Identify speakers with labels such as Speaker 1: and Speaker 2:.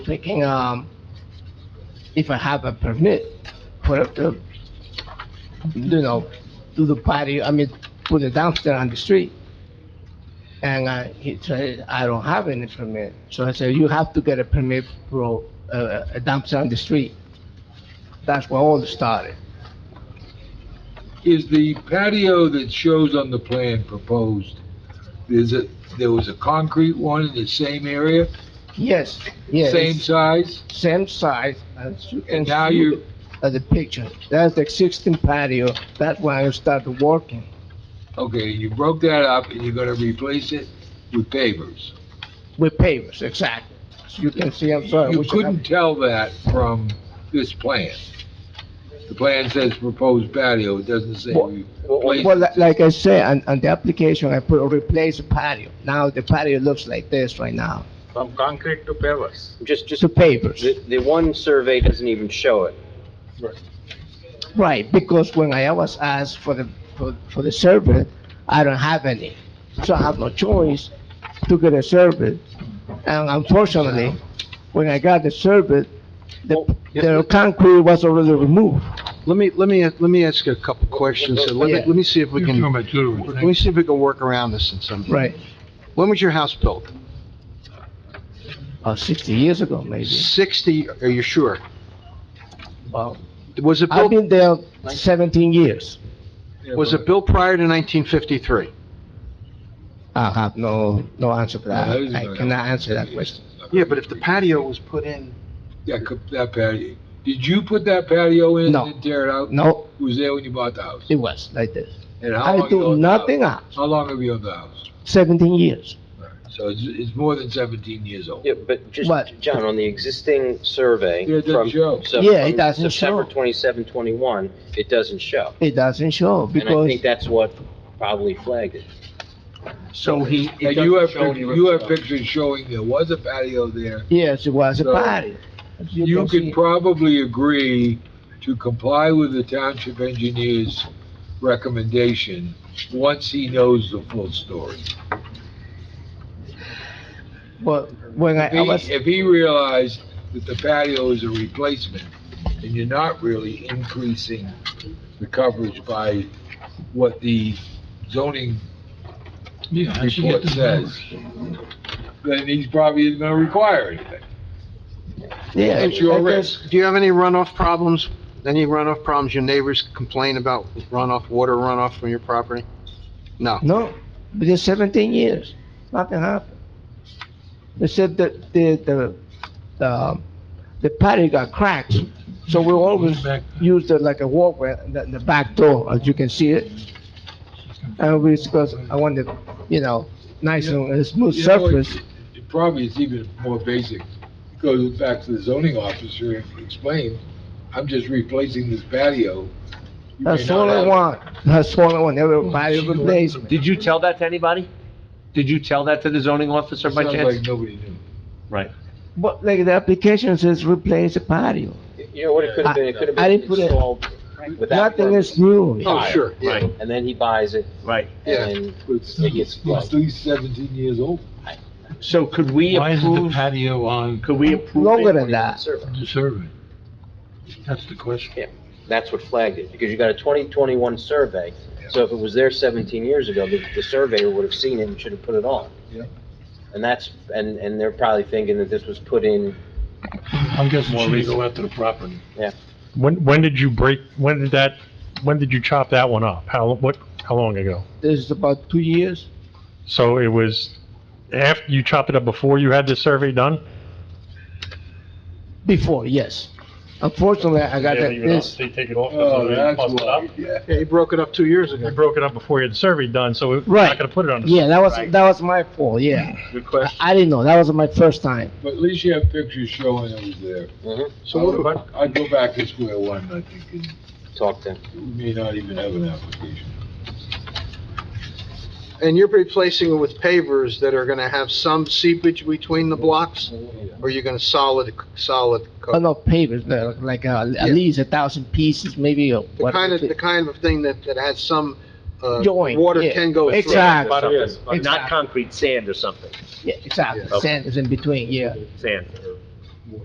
Speaker 1: thinking, um, if I have a permit for the, you know, do the patio, I mean, put a dumpster on the street. And, uh, he said, I don't have any permit. So I said, you have to get a permit for, uh, a dumpster on the street. That's where all started.
Speaker 2: Is the patio that shows on the plan proposed, is it, there was a concrete one in the same area,
Speaker 1: Yes, yes.
Speaker 2: same size?
Speaker 1: Same size as you can
Speaker 2: And now
Speaker 1: see
Speaker 2: you're,
Speaker 1: at the picture. That's the existing patio. That's when I started working.
Speaker 2: okay, you broke that up and you're gonna replace it with pavers.
Speaker 1: With pavers, exactly. As You can see, I'm sorry.
Speaker 2: You
Speaker 1: we should have-
Speaker 2: couldn't tell that from this plan. The plan says proposed patio, it doesn't say
Speaker 1: Well-
Speaker 2: replace.
Speaker 1: Well, li- like I said, on, on the application, I put replace patio. Now the patio looks like this right now.
Speaker 3: From concrete to pavers.
Speaker 4: Just, just,
Speaker 1: So pavers,
Speaker 4: the, the one survey doesn't even show it.
Speaker 1: right, because when I was asked for the, for, for the survey, I don't have any. So I have no choice to get a survey. And unfortunately, when I got the survey, the, the concrete was already removed.
Speaker 5: Let me, let me, let me ask you a couple questions, and let me, let me see if we can, let me see if we can work around this in some.
Speaker 1: Right,
Speaker 5: When was your house built?
Speaker 1: about sixty years ago, maybe.
Speaker 5: Sixty, are you sure?
Speaker 1: Well,
Speaker 5: Was it
Speaker 1: I've
Speaker 5: built,
Speaker 1: been there seventeen years.
Speaker 5: was it built prior to nineteen fifty-three?
Speaker 1: I have no, no answer for that.
Speaker 2: No, that is
Speaker 1: I
Speaker 2: not-
Speaker 1: cannot answer that question.
Speaker 5: Yeah, but if the patio was put in.
Speaker 2: That, co- that patio, did you put that patio in
Speaker 1: No.
Speaker 2: and then tear it out?
Speaker 1: No,
Speaker 2: It was there when you bought the house?
Speaker 1: it was like this.
Speaker 2: And how long
Speaker 1: I
Speaker 2: you
Speaker 1: do
Speaker 2: owned the house?
Speaker 1: nothing else.
Speaker 2: How long have you owned the house?
Speaker 1: Seventeen years.
Speaker 2: So it's, it's more than seventeen years old.
Speaker 4: Yeah, but just,
Speaker 1: What?
Speaker 4: John, on the existing survey
Speaker 2: Yeah, it doesn't
Speaker 4: from.
Speaker 2: show.
Speaker 4: so
Speaker 1: Yeah, it
Speaker 4: from
Speaker 1: doesn't
Speaker 4: September
Speaker 1: show.
Speaker 4: twenty-seven, twenty-one, it doesn't show.
Speaker 1: It doesn't show
Speaker 4: And I think
Speaker 1: because,
Speaker 4: that's what probably flagged it.
Speaker 5: So he.
Speaker 2: And you have, pic- you have pictures showing there was a patio there.
Speaker 1: yes, it was a
Speaker 2: So,
Speaker 1: party. As
Speaker 2: You
Speaker 1: can
Speaker 2: could
Speaker 1: see.
Speaker 2: probably agree to comply with the township engineer's recommendation once he knows the full story.
Speaker 1: But when I,
Speaker 2: If
Speaker 1: I was,
Speaker 2: he, if he realized that the patio is a replacement and you're not really increasing the coverage by what the zoning report says, then he's probably isn't gonna require anything.
Speaker 1: yeah.
Speaker 2: It's your
Speaker 1: I guess-
Speaker 2: risk.
Speaker 5: Do you have any runoff problems? Any runoff problems? Your neighbors complain about runoff, water runoff from your property? No.
Speaker 1: No, because seventeen years, nothing happened. They said that the, the, the, um, the patio got cracked, so we always used it like a walkway, the, the back door, as you can see it. And we, because I wanted, you know, nice and smooth
Speaker 2: You know, it-
Speaker 1: surface,
Speaker 2: It probably is even more basic. It Goes back to the zoning officer and explain, I'm just replacing this patio. You may
Speaker 1: that's
Speaker 2: not
Speaker 1: all I
Speaker 2: have-
Speaker 1: want, that's all I want, everybody replacement.
Speaker 6: Did you tell that to anybody? Did you tell that to the zoning officer by
Speaker 2: Sounds like
Speaker 6: chance?
Speaker 2: nobody knew.
Speaker 6: Right.
Speaker 1: But like the application says replace the patio,
Speaker 4: You know what it could have been? It could have
Speaker 1: I- I
Speaker 4: been
Speaker 1: didn't put it-
Speaker 4: installed without.
Speaker 1: nothing
Speaker 4: permit.
Speaker 1: is new.
Speaker 5: Oh, sure, yeah.
Speaker 6: Right,
Speaker 4: And then he buys it
Speaker 6: right.
Speaker 5: Yeah.
Speaker 4: and
Speaker 2: It's
Speaker 4: it gets
Speaker 2: at
Speaker 4: flooded.
Speaker 2: least seventeen years old.
Speaker 6: So could we
Speaker 7: Why is the
Speaker 6: approve,
Speaker 7: patio on
Speaker 6: could we approve?
Speaker 1: Longer
Speaker 6: it?
Speaker 1: than that,
Speaker 4: Survey.
Speaker 7: the survey? That's the question.
Speaker 4: That's what flagged it, because you got a 2021 survey. So if it was there 17 years ago, the, the surveyor would have seen it and should have put it on.
Speaker 2: Yeah.
Speaker 4: And that's, and, and they're probably thinking that this was put in,
Speaker 7: I'm guessing
Speaker 6: More
Speaker 7: she didn't
Speaker 6: reason.
Speaker 7: go after the property.
Speaker 8: When, when did you break, when did that, when did you chop that one up? How, what, how long ago?
Speaker 1: this is about two years.
Speaker 8: So it was after, you chopped it up before you had the survey done?
Speaker 1: Before, yes. Unfortunately, I got that- this,
Speaker 8: They take it off.
Speaker 2: Oh, that's why, yeah.
Speaker 5: Yeah, he broke it up two years ago.
Speaker 8: You broke it up before you had the survey done, so we're
Speaker 1: Right.
Speaker 8: not gonna put it on the.
Speaker 1: yeah, that was, that was my fault, yeah.
Speaker 5: Mm.
Speaker 2: Good question.
Speaker 1: I didn't know, that was my first time.
Speaker 2: But at least you have pictures showing it was there.
Speaker 4: Mhm.
Speaker 2: So what about, I'd go back to square one, I think, and
Speaker 4: talked to.
Speaker 2: we may not even have an application.
Speaker 5: And you're replacing it with pavers that are gonna have some seepage between the blocks? Or you're gonna solid, solid
Speaker 1: I don't
Speaker 5: coat?
Speaker 1: know, papers, no, like, uh, at least a thousand pieces, maybe, uh, or
Speaker 5: The kind
Speaker 1: whatever.
Speaker 5: of, the kind of thing that, that has some, uh,
Speaker 1: Joint,
Speaker 5: water
Speaker 1: yeah.
Speaker 5: can go through.
Speaker 1: Exactly,
Speaker 6: Something,
Speaker 1: Exactly.
Speaker 6: Not concrete, sand or something,
Speaker 1: yeah, exactly.
Speaker 6: Yeah.
Speaker 1: Sand is in between, yeah.
Speaker 6: sand.